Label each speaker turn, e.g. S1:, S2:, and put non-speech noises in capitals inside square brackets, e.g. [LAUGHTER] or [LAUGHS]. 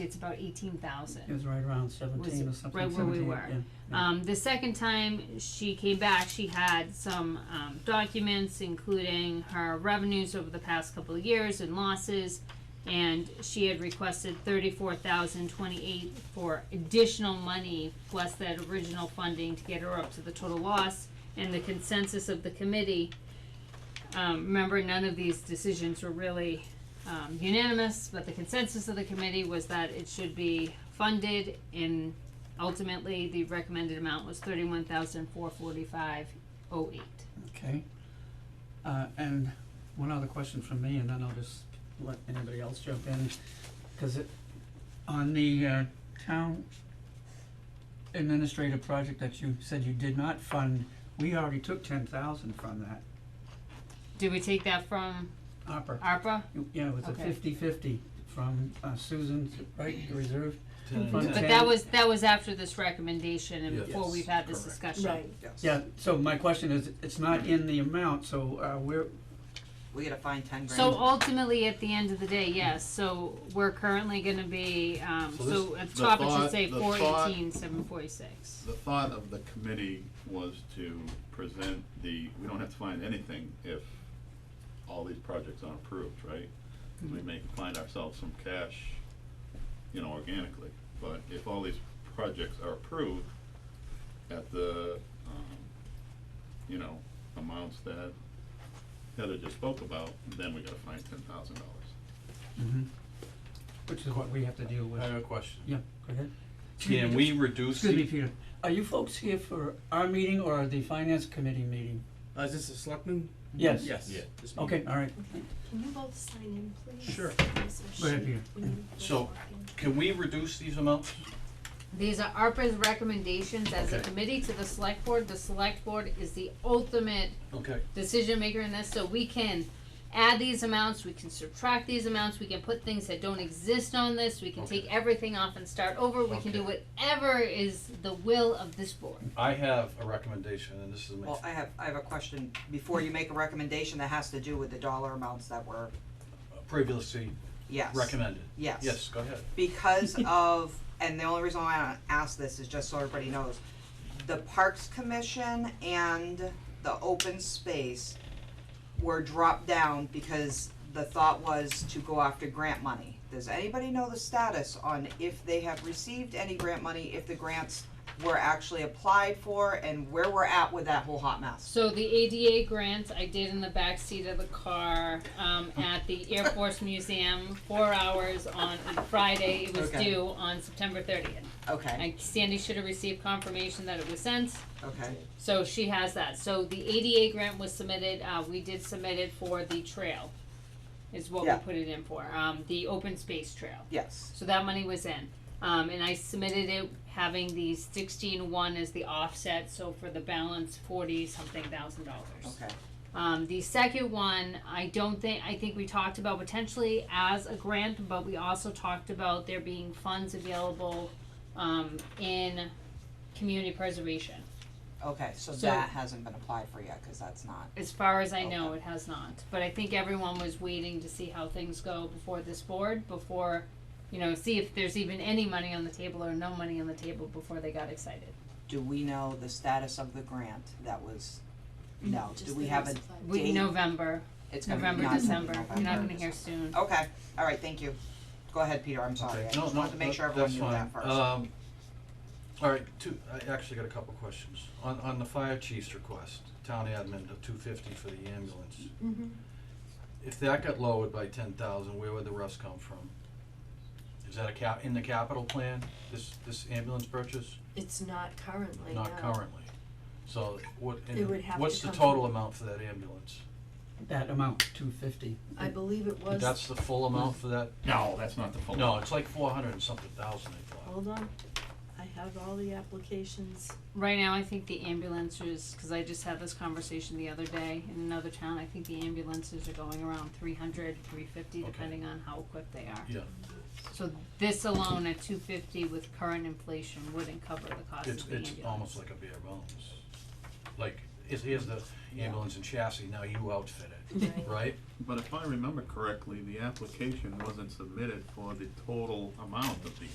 S1: it's about eighteen thousand.
S2: It was right around seventeen or something,
S1: right where we
S2: seventeen,
S1: were.
S2: yeah, yeah.
S1: Um, the second time she came back, she had some um, documents, including her revenues over the past couple of years and losses, and she had requested thirty-four thousand twenty-eight for additional money plus that original funding to get her up to the total loss. And the consensus of the committee, um, remember, none of these decisions were really um, unanimous, but the consensus of the committee was that it should be funded in Ultimately, the recommended amount was thirty-one thousand four forty-five oh eight.
S2: Okay. Uh, and one other question from me, and then I'll just let anybody else jump in, cause it, on the, uh, town administrative project that you said you did not fund, we already took ten thousand from that,
S1: Did we take that from
S2: ARPA.
S1: ARPA?
S2: You- Yeah, it was a
S1: Okay.
S2: fifty-fifty from, uh, Susan's, right, the reserve, Fund
S1: But that
S2: ten.
S1: was, that was after this recommendation and
S3: Yes.
S1: before
S3: Yes,
S1: we've had this
S3: correct.
S1: discussion.
S2: Yeah, so my question is, it's not in the amount, so, uh, we're,
S4: We gotta find ten grand.
S1: So ultimately, at the end of the day, yes, so we're currently gonna be, um,
S3: So this-
S1: so at the
S3: the
S1: top it should
S3: thought-
S1: say
S3: the
S1: four
S3: thought-
S1: eighteen, seven forty-six.
S3: The thought of the committee was to present the, we don't have to find anything if all these projects aren't approved, right? We may find ourselves some cash, you know, organically, but if all these projects are approved at the, um, you know, amounts that Heather just spoke about, then we gotta find ten thousand dollars.
S2: Mm-hmm. which is what we have to deal with.
S5: I have a question.
S2: Yeah, go ahead.
S5: Can we reduce
S2: Excuse me,
S5: the,
S2: Peter, are you folks here for our meeting or the finance committee meeting?
S6: Uh, is this a selectman?
S2: Yes.
S6: Yes.
S5: Yeah. Oh,
S6: This meeting.
S2: Okay, all right,
S7: Can you both sign in, please?
S6: Sure.
S2: go ahead, Peter.
S7: When you both
S5: Mm-hmm. So-
S7: walk in.
S5: can we reduce these amounts?
S1: These are ARPA's recommendations as a
S5: Okay.
S1: committee to the select board. The select board is the ultimate
S5: Okay.
S1: decision maker in this, so we can add these amounts, we can subtract these amounts, we can put things that don't exist on this, we can take everything off and start over, we can do whatever is the will of this board.
S5: I have a recommendation, and this is my,
S4: Well, I have, I have a question, before you make a recommendation that has to do with the dollar amounts that were,
S5: previously
S4: yes.
S5: recommended.
S4: Yes.
S5: Yes, go ahead.
S4: Because [LAUGHS] of, and the only reason why I ask this is just so everybody knows, the Parks Commission and the open space were dropped down because the thought was to go after grant money. Does anybody know the status on if they have received any grant money, if the grants were actually applied for, and where we're at with that whole hot mess?
S1: So the ADA grant I did in the back seat of the car, um, at the Air Force Museum, four hours on a Friday, it was
S4: Okay.
S1: due on September thirtieth.
S4: Okay,
S1: And Sandy should have received confirmation that it was sent,
S4: okay.
S1: So she has that. So the ADA grant was submitted, uh, we did submit it for the trail, is what we
S4: Yeah.
S1: put it in for, um, the open space trail.
S4: Yes.
S1: So that money was in. Um, and I submitted it having the sixteen one as the offset, so for the balance, forty something thousand dollars.
S4: Okay.
S1: Um, the second one, I don't think, I think we talked about potentially as a grant, but we also talked about there being funds available, um, in community preservation.
S4: Okay, so
S1: So-
S4: that hasn't been applied for yet, cause that's not,
S1: As far as I know, it has not, but I think everyone was waiting to see how things go before this board, before, you know, see if there's even any money on the table or no money on the table before they got excited.
S4: do we know the status of the grant that was,
S1: Mm-hmm.
S4: no, do
S7: Just
S4: we
S7: the
S4: have a,
S7: notice of-
S1: We,
S4: Date?
S1: November,
S4: it's gonna be
S1: November,
S4: not gonna be
S1: December, you're not
S4: November.
S1: gonna hear soon.
S4: Okay, alright, thank you. Go ahead, Peter, I'm sorry, I
S5: Okay.
S4: just
S5: No, no,
S4: wanted to make
S5: that-
S4: sure everyone
S5: that's
S4: knew
S5: fine.
S4: that first.
S5: Um, all right, two, I actually got a couple questions. On, on the fire chief's request, town admin of two fifty for the ambulance. If that got lowered by ten thousand, where would the rest come from? Is that a cap, in the capital plan, this, this ambulance purchase?
S7: It's not currently, no.
S5: Not currently. So what, and
S7: uh, It would have to
S5: what's the
S7: come
S5: total
S7: from-
S5: amount for that ambulance?
S2: That amount, two fifty.
S7: I believe it was,
S5: That's the full amount for that?
S3: No, that's not the full.
S5: No, it's like four hundred and something thousand, I thought.
S7: hold on, I have all the applications.
S1: Right now, I think the ambulances, cause I just had this conversation the other day in another town, I think the ambulances are going around 300, 350,
S5: Okay.
S1: depending on how equipped they are.
S5: Yeah,
S1: So this alone at two fifty with current inflation wouldn't cover the cost of
S5: it's,
S1: the ambulance.
S5: it's almost like a bare bones. Like is, here's the ambulance and chassis, now you outfit it,
S7: Right.
S5: right?
S3: But if I remember correctly, the application wasn't submitted for the total amount of the